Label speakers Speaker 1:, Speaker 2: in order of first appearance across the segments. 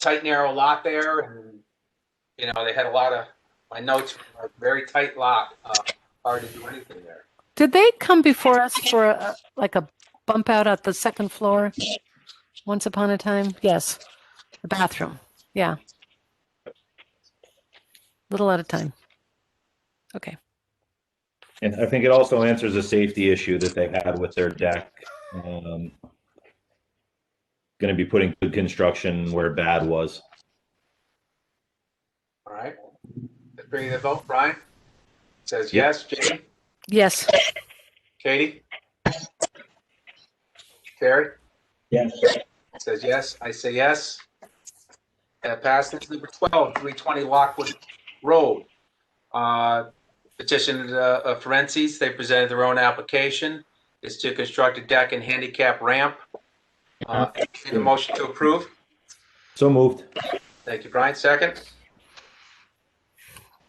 Speaker 1: tight, narrow lot there, and you know they had a lot of my notes were a very tight lot. Uh, hard to do anything there.
Speaker 2: Did they come before us for a- like a bump out at the second floor? Once upon a time? Yes. The bathroom. Yeah. Little at a time. Okay.
Speaker 3: And I think it also answers a safety issue that they had with their deck. Um, going to be putting good construction where bad was.
Speaker 1: All right, bring the vote. Brian says yes. Jamie,
Speaker 2: Yes.
Speaker 1: Katie, Carrie
Speaker 4: Yes.
Speaker 1: says yes. I say yes. That passes. Number twelve, three twenty Lockwood Road. Uh, petition uh, of Ferences. They presented their own application. Is to construct a deck and handicap ramp. Uh,
Speaker 2: Uh-huh.
Speaker 1: need a motion to approve.
Speaker 3: So moved.
Speaker 1: Thank you, Brian. Second.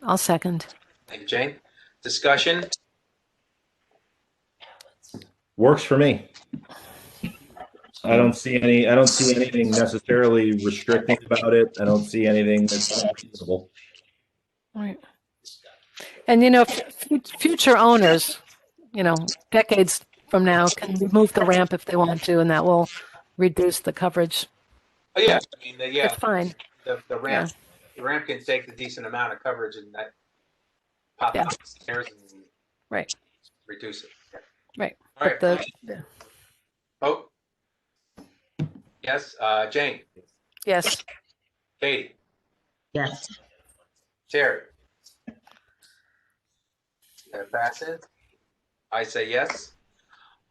Speaker 2: I'll second.
Speaker 1: Thank you, Jane. Discussion?
Speaker 3: Works for me. I don't see any. I don't see anything necessarily restricting about it. I don't see anything that's unreasonable.
Speaker 2: All right. And you know, fu- future owners, you know, decades from now can remove the ramp if they want to, and that will reduce the coverage.
Speaker 1: Oh, yeah, I mean, the- yeah,
Speaker 2: It's fine.
Speaker 1: the, the ramp, the ramp can take a decent amount of coverage and that pop
Speaker 2: Yeah.
Speaker 1: out the stairs and
Speaker 2: Right.
Speaker 1: reduce it. Yeah.
Speaker 2: Right,
Speaker 1: All
Speaker 2: But
Speaker 1: right,
Speaker 2: the, yeah.
Speaker 1: vote. Oh. Yes, uh, Jane,
Speaker 2: yes.
Speaker 1: Katie,
Speaker 4: Yes.
Speaker 1: Terry. That passes. I say yes.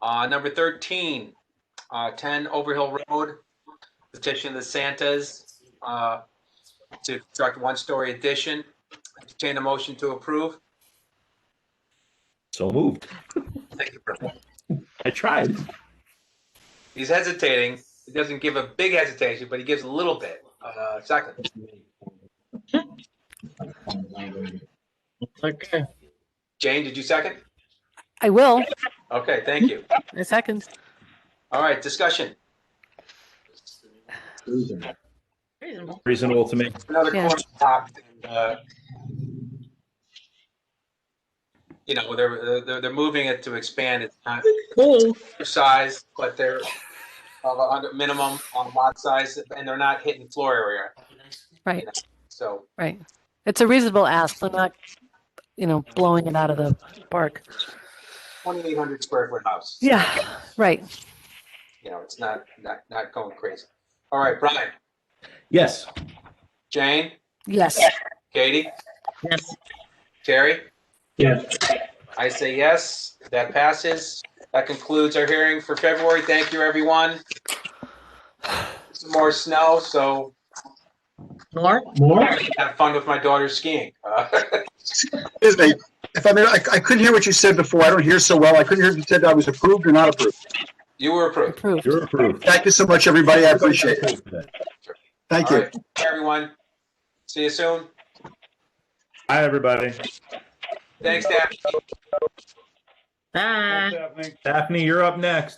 Speaker 1: Uh, number thirteen, uh, ten Overhill Road, petition of the Santas, uh, to construct one-story addition. Entertain a motion to approve.
Speaker 3: So moved.
Speaker 1: Thank you, Brian.
Speaker 3: I tried.
Speaker 1: He's hesitating. He doesn't give a big hesitation, but he gives a little bit. Uh, second.
Speaker 4: It's okay.
Speaker 1: Jane, did you second?
Speaker 2: I will.
Speaker 1: Okay, thank you.
Speaker 2: I second.
Speaker 1: All right, discussion.
Speaker 4: Reasonable.
Speaker 3: Reasonable to me.
Speaker 1: Another
Speaker 2: Yeah.
Speaker 1: corner pop. uh, You know, they're, they're, they're moving it to expand. It's not
Speaker 4: Cool.
Speaker 1: size, but they're of a hundred minimum on lot size and they're not hitting floor area.
Speaker 2: Right.
Speaker 1: So,
Speaker 2: Right. It's a reasonable ask, but not, you know, blowing it out of the park.
Speaker 1: 2,800 square foot house.
Speaker 2: Yeah. Right.
Speaker 1: You know, it's not, not, not going crazy. All right, Brian,
Speaker 3: Yes.
Speaker 1: Jane,
Speaker 2: Yes.
Speaker 1: Katie,
Speaker 4: Yes.
Speaker 1: Terry?
Speaker 4: Yes.
Speaker 1: I say yes, that passes. That concludes our hearing for February. Thank you, everyone. Some more snow, so
Speaker 4: More? More?
Speaker 1: have fun with my daughter skiing. Uh,
Speaker 5: Excuse me, if I may, I, I couldn't hear what you said before. I don't hear so well. I couldn't hear if you said I was approved or not approved.
Speaker 1: You were approved.
Speaker 2: Approved.
Speaker 3: You're approved.
Speaker 5: Thank you so much, everybody. I appreciate it. Thank
Speaker 1: All
Speaker 5: you.
Speaker 1: right, Everyone, see you soon.
Speaker 3: Hi, everybody.
Speaker 1: Thanks, Daphne.
Speaker 4: Bye.
Speaker 3: Daphne, you're up next.